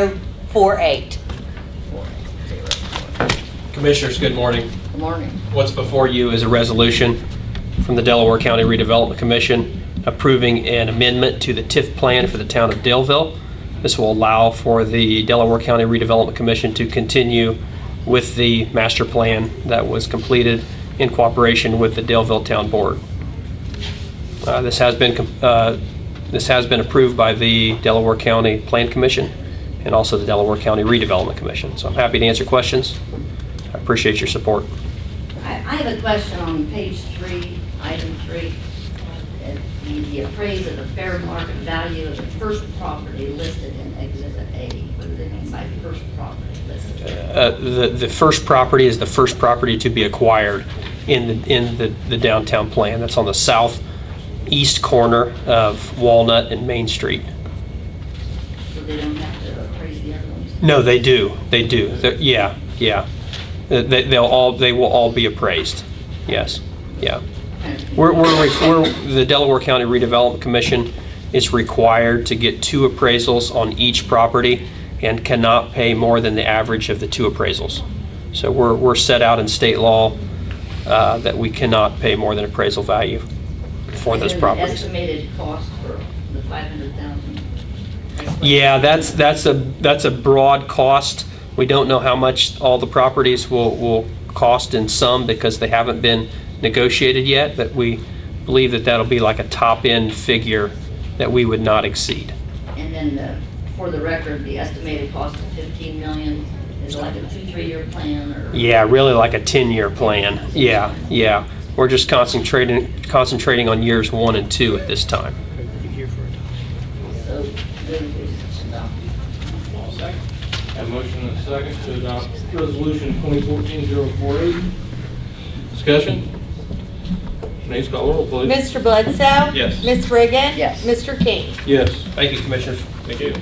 2014-048. Commissioners, good morning. Good morning. What's before you is a resolution from the Delaware County Redevelopment Commission approving an amendment to the TIF plan for the town of Daleville. This will allow for the Delaware County Redevelopment Commission to continue with the master plan that was completed in cooperation with the Daleville Town Board. Uh, This has been, com- uh, this has been approved by the Delaware County Plan Commission and also the Delaware County Redevelopment Commission. So I'm happy to answer questions. I appreciate your support. I, I have a question on page three, item three. Uh, The the appraise of the fair market value of the first property listed in exhibit A, what do they mean by first property listed? Uh, The the first property is the first property to be acquired in the in the the downtown plan. That's on the southeast corner of Walnut and Main Street. So they don't have to appraise the other ones? No, they do, they do. They're- Yeah, yeah. Uh, they- They'll all, they will all be appraised. Yes, yeah. We're, we're, re- we're, the Delaware County Redevelopment Commission is required to get two appraisals on each property and cannot pay more than the average of the two appraisals. So we're, we're set out in state law uh, that we cannot pay more than appraisal value for And those then the properties. Estimated cost for the five hundred thousand? Yeah, that's, that's a, that's a broad cost. We don't know how much all the properties will, will cost in sum because they haven't been negotiated yet, but we believe that that'll be like a top-end figure that we would not exceed. And then the, for the record, the estimated cost of fifteen million is like a two, three-year plan or? Yeah, really like a 10-year plan. Yeah, yeah. We're just concentrating, concentrating on years one and two at this time. So, then we just adopt. I'll second. Have a motion and a second to adopt resolution 2014-048. Discussion? Denise, call the roll, please. Mr. Bledsoe? Yes. Ms. Riggin? Yes. Mr. King? Yes. Thank you, Commissioners. Thank you.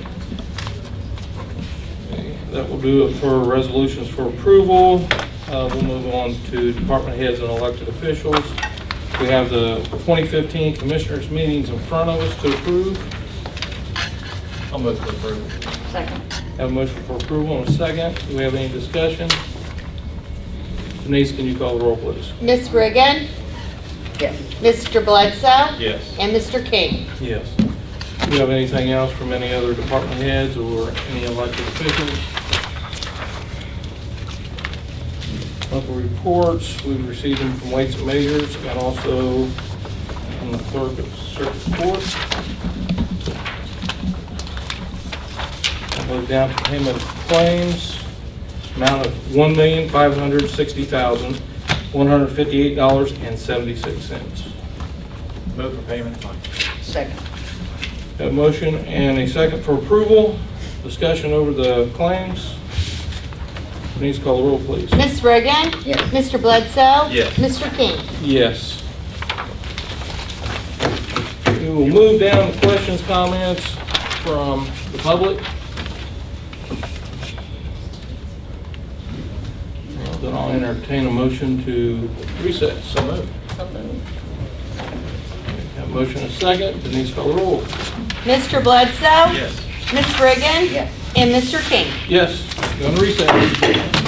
Okay, That will do it for resolutions for approval. Uh, We'll move on to department heads and elected officials. We have the 2015 Commissioners' meetings in front of us to approve. I'll move to approve. Second. Have a motion for approval and a second. Do we have any discussion? Denise, can you call the roll, please? Ms. Riggin? Yes. Mr. Bledsoe? Yes. And Mr. King? Yes. Do you have anything else from any other department heads or any elected officials? Local reports, we've received them from weights and measures and also from the clerk of circuit court. I'll go down to payment of claims, amount of $1,560,158.76. Move for payment of claims. Second. Got a motion and a second for approval. Discussion over the claims. Denise, call the roll, please. Ms. Riggin? Yes. Mr. Bledsoe? Yes. Mr. King? Yes. We will move down to questions, comments from the public. Well, Then I'll entertain a motion to recess. So moved. Got a motion and a second. Denise, call the roll. Mr. Bledsoe? Yes. Ms. Riggin? Yes. And Mr. King? Yes, go on recess.